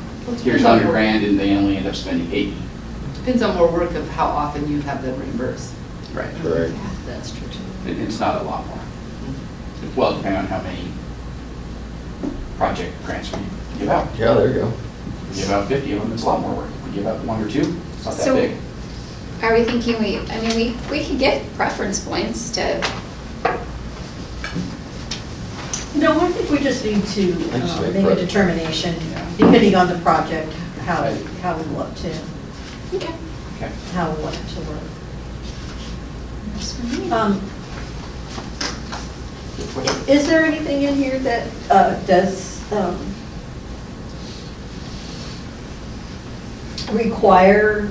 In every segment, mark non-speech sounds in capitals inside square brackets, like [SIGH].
here's Depends on hundred where- grand, and they only end up spending eighty. Depends on more work of how often you have them reimbursed. Right. Correct. That's true too. It- It's not a lot more. Well, depending on how many project grants we give out. Yeah, there you go. We give out fifty of them, it's a lot more work. If we give out one or two, it's not that So- big. Are we thinking we, I mean, we, we could get preference points to, No, I think we just need to I just uh, make make a prep. determination, Yeah. depending on the project, how, Right. how we want to, okay. Okay. how we want it to work. That's fine. Um, i- Is there anything in here that uh, does um, require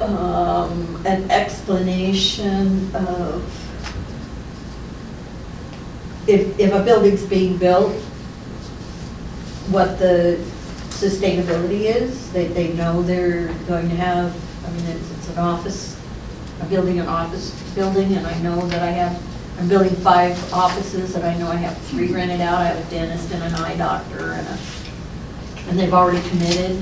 um, an explanation of if, if a building's being built, what the sustainability is? They, they know they're going to have, I mean, it's, it's an office I'm building an office building, and I know that I have, I'm building five offices, and I know I have three rented out, I have a dentist and an eye doctor, and a, and they've already committed.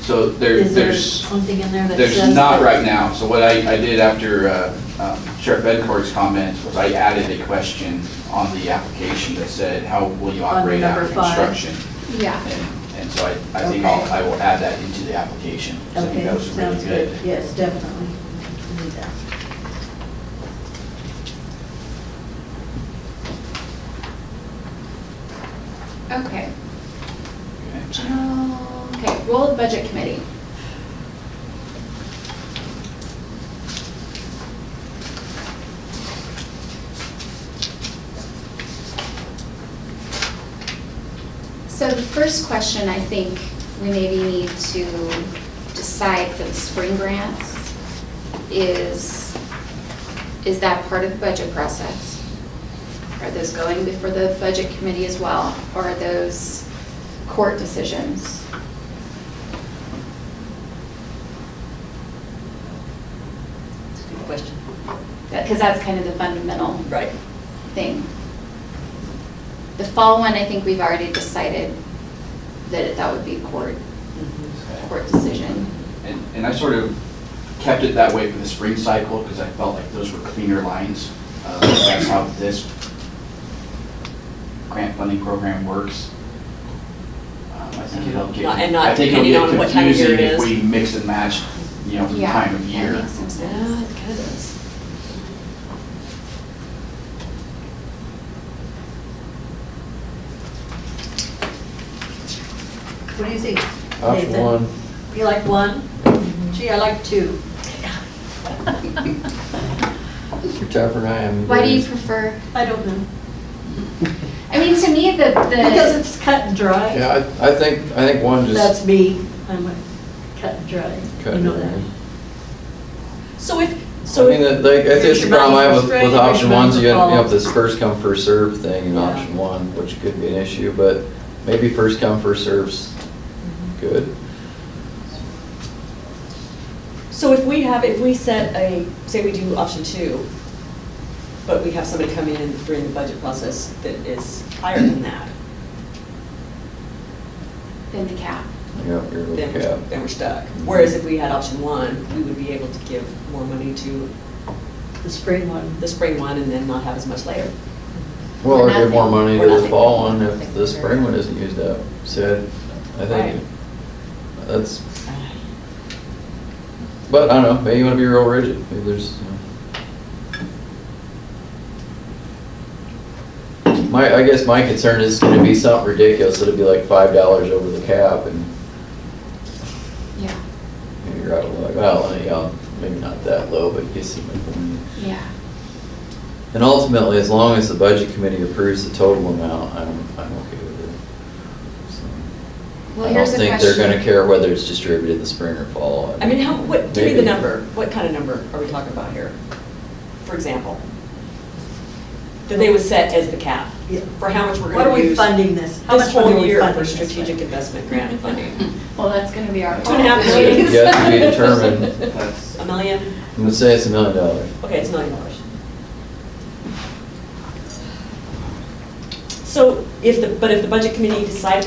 So there, Is there there's. something in there that says? There's not that- right now. So what I, I did after uh, um, Sheriff Bedford's comments was I added a question on the application that said, how will you On operate after number five. construction? Yeah, And and so I, I think I'll, Okay. I will add that into the application. 'cause I think Okay, that was really sounds good, good. yes, definitely. We need that. okay. Okay. General, okay, role of budget committee. So the first question, I think, we maybe need to decide for the spring grants is, is that part of the budget process? Are those going before the budget committee as well, or are those court decisions? That's a good question. Because that's kind of the fundamental Right. thing. The fall one, I think we've already decided that that would be court, court decision. And, and I sort of kept it that way for the spring cycle because I felt like those were cleaner lines. Uh, That's how this grant funding program works. Um, I think it'll get, And not I think it'll depending get on what time of year confusing it if we is. mix and match, you know, from Yeah, time of that year. makes some sense. Yeah, [LAUGHS] it kind of is. What do you think? Option Nathan? one. You like one? Gee, I like two. You're tougher than I am. Why do you prefer, I don't know. I mean, to me, the, Because the, it's cut and dry. Yeah, I, I think, I think one That's just me, I'm a cut and dry, cut. you it. know that. I So if, so. mean, that- like, I think that's the Everybody's problem I have with, frustrated, with option one's you have, you have everybody's this first come, first served thing in Yeah. option one, which could be an issue, but maybe first come, first serves good. So if we have, if we set a, say we do option two, but we have somebody come in during the budget process that is higher than that, then the cap. Yeah, you're then, okay. we're- then we're stuck. Whereas if we had option one, we would be able to give more money to The spring one. the spring one and then not have as much later. Well, Or or give more nothing. money Or to the nothing. fall one if Nothing. the spring one isn't used up. So I Right. think that's, but I don't know, maybe you wanna be real rigid, maybe there's. you know. My, I guess my concern is it's gonna be something ridiculous, it'll be like five dollars over the cap and Yeah, you're out of luck. Well, anyhow, maybe not that low, but you can see my point. yeah. And ultimately, as long as the budget committee approves the total amount, I'm, I'm okay with it. So. Well, I don't here's a question. think they're gonna care whether it's distributed in the spring or fall. [LAUGHS] I mean, how, what, give me the Maybe. number, what kind of number are we talking about here? For example? That they would set as the cap, Yeah. for how much we're What gonna are we use. funding this? How This much money are whole we year funding for this with? strategic investment grant funding, Well, that's gonna be our. Two and a half call. million. Yet to be [LAUGHS] determined. That's, a million, I'm gonna say it's a million dollars. okay, it's a million dollars. So if the, but if the budget committee decides